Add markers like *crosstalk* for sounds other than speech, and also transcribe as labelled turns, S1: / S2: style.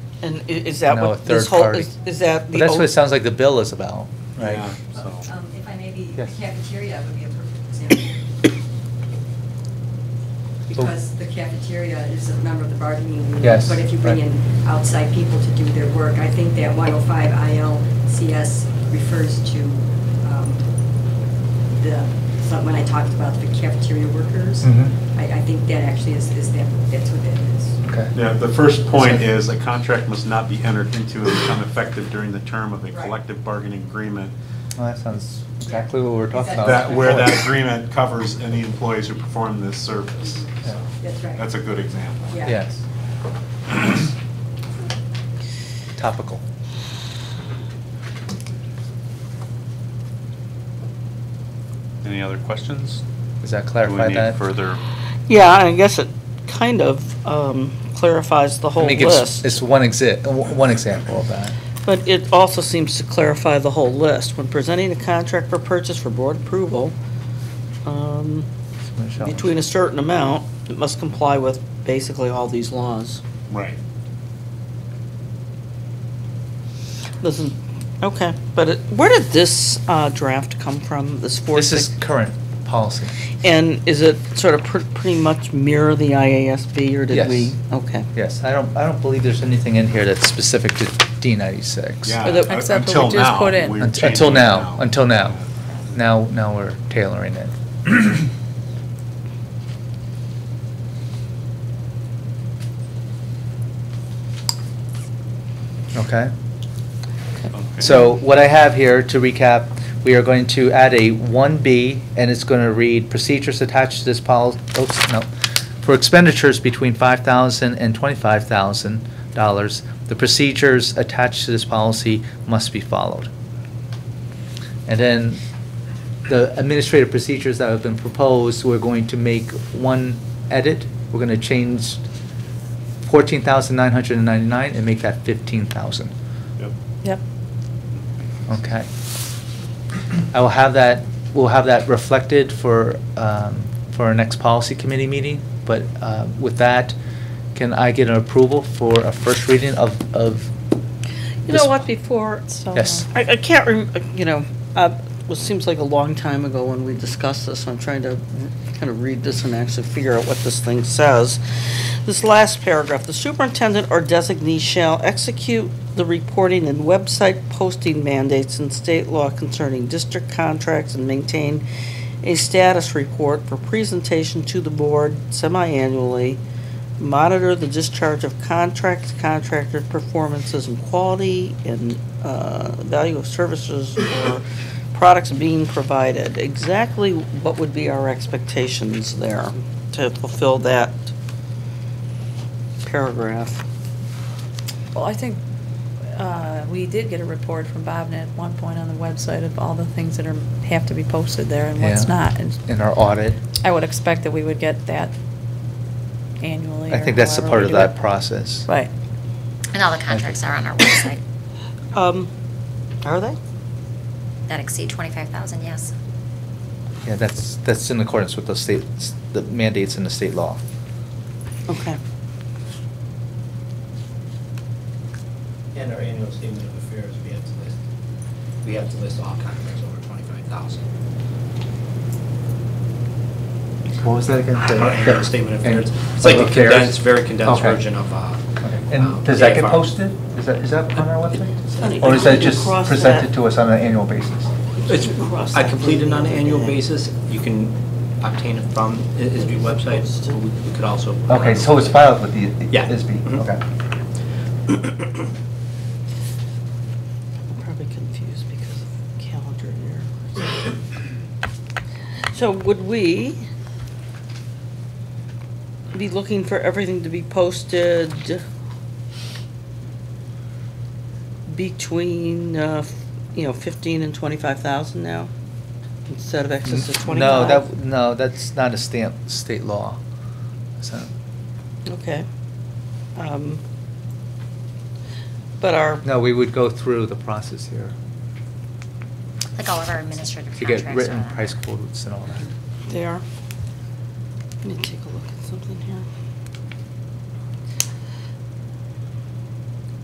S1: And i- is that
S2: No, a
S1: what this
S2: third
S1: whole,
S2: party.
S1: is is that
S2: But
S1: the?
S2: that's what
S1: o-
S2: it sounds like the bill is about, right?
S3: Yeah,
S4: Um,
S3: so.
S4: If I may be, the
S2: Yes.
S4: cafeteria would be a perfect example. Because the cafeteria is a member of the bargaining unit.
S2: Yes,
S4: But if you bring
S2: right.
S4: in outside people to do their work, I think that 105 ILCS refers to um, the, so when I talked about the cafeteria workers,
S2: Mhm.
S4: I, I think that actually is, is that, that's what that is.
S2: Okay.
S3: Yeah, the first point is a contract must not be entered into and become effective during the term of a
S4: Right.
S3: collective bargaining agreement.
S2: Well, that sounds exactly what we were talking about.
S3: That, where that
S2: before.
S3: agreement covers any employees who perform this service.
S2: Yeah.
S4: That's right.
S3: That's a good example.
S4: Yeah.
S2: Yes. Topical.
S3: Any other questions?
S2: Does that clarify that?
S1: Yeah, I guess it kind of um, clarifies the
S2: I
S1: whole
S2: mean, it gives-
S1: list.
S2: It's one exi, one example of that.
S1: But it also seems to clarify the whole list. When presenting a contract for purchase for board approval, um,
S2: Michelle.
S1: between a certain amount, it must comply with basically all these laws.
S3: Right.
S1: Doesn't, okay, but it- where did this uh, draft come from, this four?
S2: This is current policy.
S1: And is it sort of pr- pretty much mirror the IASB, or did
S2: Yes.
S1: we? Okay.
S2: Yes, I don't, I don't believe there's anything in here that's specific to D ninety-six.
S3: Yeah.
S5: Or the-
S3: u-
S5: except what we
S3: until
S5: just
S3: now,
S5: put in.
S3: we're
S2: Unt-
S3: changing
S2: Until
S3: it
S2: now, until now. Now, now we're tailoring
S3: *clears throat*
S2: it. Okay?
S3: Okay.
S2: So what I have here, to recap, we are going to add a 1B, and it's going to read, procedures attached to this policy, oops, no, for expenditures between $5,000 and $25,000, the procedures attached to this policy must be followed. And then the administrative procedures that have been proposed, we're going to make one edit. We're going to change 14,999 and make that 15,000.
S3: Yep.
S5: Yep.
S2: Okay. I will have that, we'll have that reflected for, um, for our next policy committee meeting. But, uh, with that, can I get an approval for a first reading of, of?
S1: You
S2: this-
S1: know what, before,
S5: So,
S2: Yes.
S1: I, I can't, rem- you know, uh, it seems like a long time ago when we discussed this, I'm trying to kind of read this and actually figure out what this thing says. This last paragraph, "The superintendent or designee shall execute the reporting and website posting mandates in state law concerning district contracts and maintain a status report for presentation to the board semi-annually, monitor the discharge of contracts, contractor performances and quality, and uh, value of services or products being provided. Exactly what would be our expectations there to fulfill that paragraph?
S5: Well, I think uh, we did get a report from Bob at one point on the website of all the things that are, have to be posted there and what's
S2: Yeah.
S5: not. And
S2: In our audit.
S5: I would expect that we would get that annually
S2: I
S5: or
S2: think that's a
S5: however
S2: part
S5: we
S2: of
S5: do
S2: that
S5: it.
S2: process.
S5: Right.
S6: And all the contracts are on our website
S1: Um, Are they?
S6: that exceed 25,000, yes.
S2: Yeah, that's, that's in accordance with the state, the mandates in the state law.
S1: Okay.
S7: And our annual statement of affairs, we have to list, we have to list all contracts over twenty-five thousand.
S2: What was that again?
S7: Our annual statement of affairs, it's like
S2: Of
S7: a
S2: affairs?
S7: condensed, very condensed
S2: Okay.
S7: version of, uh.
S2: Okay.
S7: um,
S2: And does that get
S7: AFR.
S2: posted? Is that, is that on our website?
S1: Honey,
S2: Or is that
S1: you
S2: just
S1: cross
S2: presented
S1: that-
S2: to us on an annual basis?
S7: It's,
S1: Cross
S7: I
S1: that
S7: completed it on an
S1: thing.
S7: annual basis, you can obtain it from I- ISB website, but we we could also.
S2: Okay, so it's filed with the
S7: Yeah.
S2: ISB,
S7: Mhm.
S2: okay.
S1: I'm probably confused because of calendar year. So would we be looking for everything to be posted between, uh, f- you know, fifteen and twenty-five thousand now? Instead of excess of
S2: No,
S1: twenty-five?
S2: that, no, that's not a stamp, state law. So,
S1: Okay. Um, But our.
S2: no, we would go through the process here
S6: Like all of our administrative
S2: to
S6: contracts.
S2: get
S6: are
S2: written
S6: on our-
S2: price quotes and all that.
S1: They are. Let me take a look at something here.